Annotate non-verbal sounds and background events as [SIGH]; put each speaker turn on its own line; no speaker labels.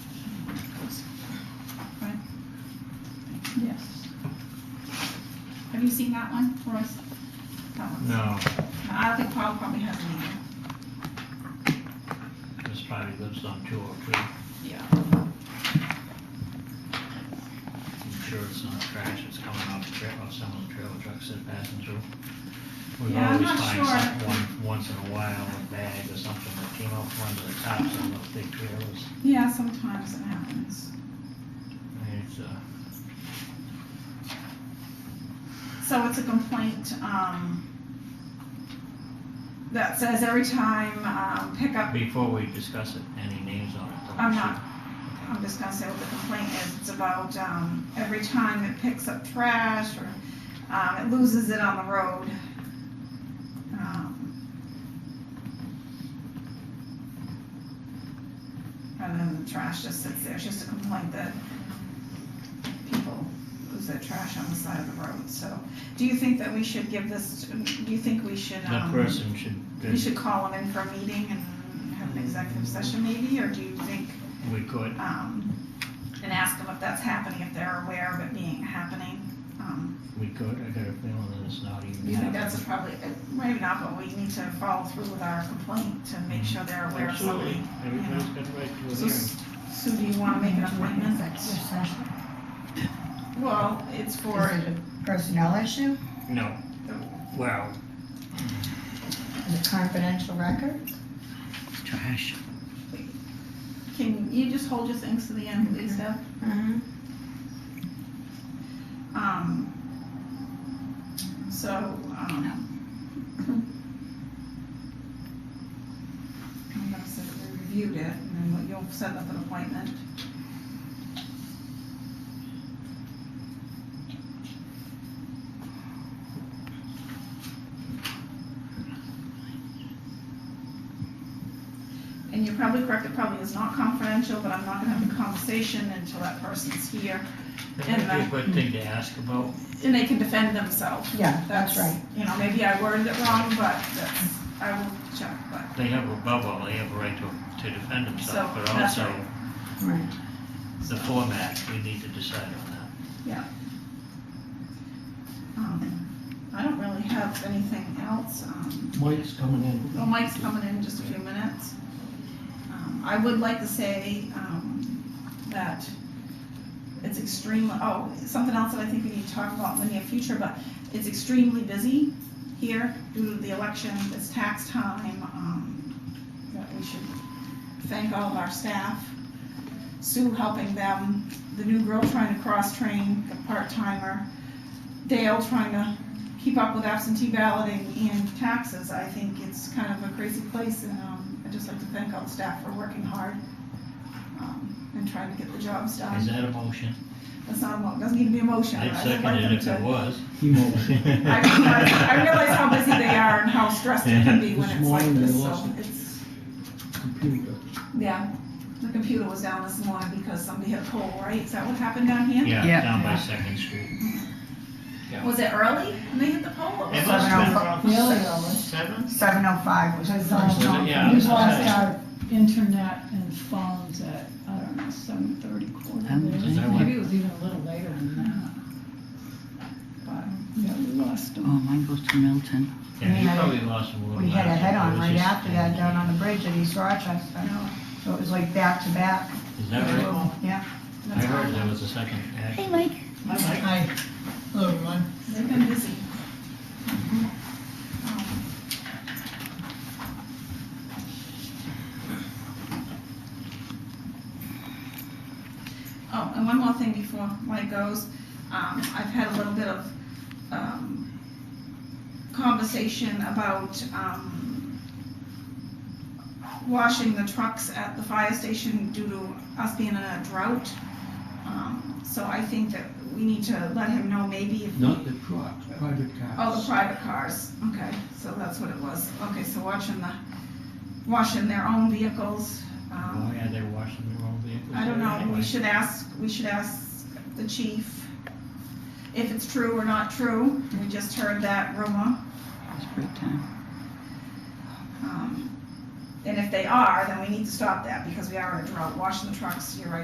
Yes. Have you seen that one, Royce? That one?
No,
I think Paul probably has it either.
this probably lives on two oh three,
Yeah.
I'm sure it's not trash, it's coming off the trail, off some of the trailer trucks that are passing through. We
Yeah, I'm
always
not
find
sure.
some, one, once in a while, a bag or something that came off one of the tops of those big trailers.
Yeah, sometimes it happens.
And It's, uh,
So it's a complaint, um, that says every time, um, pickup,
before we discuss it, any names on it? don't
I'm
we
not-
should-
I'm just gonna say what the complaint is, it's about, um, every time it picks up trash or, um, it loses it on the road. Um, And then the trash just sits there, it's just a complaint that people lose their trash on the side of the road, so. Do you think that we should give this, do you think we should,
That
um,
person should,
we should call them in for a meeting and have an executive session maybe, or do you think,
we could,
um, and ask them if that's happening, if they're aware of it being happening? Um,
we could, I got a feeling that it's not even.
You think
happening.
that's probably, maybe not, but we need to follow through with our complaint to make sure they're aware of
Absolutely,
something.
everybody's got the right to a
So,
hearing.
s- Sue, do you wanna make an appointment? Well, it's
Or
for,
is it a personnel issue?
No, well,
Is it confidential record?
Trash.
can you just hold your things to the end, please, Deb?
Mm-hmm.
Um, so, um. [LAUGHS] I'm gonna say that we reviewed it, and then you'll set up an appointment. And you're probably correct, it probably is not confidential, but I'm not gonna have a conversation until that person's here.
That
And
might be a
that-
good thing to ask about.
and they can defend themselves.
Yeah, that's right.
You know, maybe I worded it wrong, but that's, I will check, but,
They have above all, they have a right to, to defend themselves,
So,
but
that's
also
right.
Right.
the format, we need to decide on that.
um, I don't really have anything else, um,
Mike's coming in.
well, Mike's coming in in just a few minutes. Um, I would like to say, um, that it's extremely, oh, something else that I think we need to talk about in the near future, but it's extremely busy here due to the election, it's tax time, um, that we should thank all of our staff. Sue helping them, the new girl trying to cross-train, the part-timer, Dale trying to keep up with absentee balloting and taxes. I think it's kind of a crazy place, and um, I'd just like to thank all the staff for working hard um, and trying to get the jobs
Is
done.
that a motion?
That's not, a mo- doesn't need to be a motion. but
I'd
I'd
second
like
it
them
if
to-
it was.
[LAUGHS]
I realize, I realize how busy they are and how stressed it can
[LAUGHS]
be when
This
it's like
morning they
this, so
lost
it's,
Computer.
yeah. The computer was down this morning because somebody hit a pole, right? Is that what happened down here?
Yeah,
Yeah.
down by Second Street.
Was it early when they hit the pole?
It must
have
have
been around
been
Really?
around seven?
Seven oh five was the
Because,
first
um,
one.
Yeah,
We
that's
lost
what I said.
our internet and phones at, I don't know, seven thirty quarter.
Um,
there.
is that
Maybe it was even a little later than that. But, yeah, we lost
Oh,
them.
mine goes to Milton.
Yeah, you
Yeah.
probably lost a little.
We had a
last
head-on
year.
right
It was just-
after that down on the bridge at East Rochester. So it was like back-to-back.
Is that right?
Yeah.
I heard there was a second action.
Mike.
Hi. Hello, everyone.
They've been busy. Um, Oh, and one more thing before Mike goes. Um, I've had a little bit of, um, conversation about, um, washing the trucks at the fire station due to us being in a drought. Um, So I think that we need to let him know maybe if.
Not the truck, private cars.
Oh, the private cars, okay, so that's what it was. Okay, so watching the, washing their own vehicles.
Oh,
um,
yeah, they're washing their own vehicles.
I don't
there
know, we
anyway.
should ask, we should ask the chief if it's true or not true. We just heard that rumor.
It's break time.
um, And if they are, then we need to stop that because we are in a drought. Washing the trucks, you're right,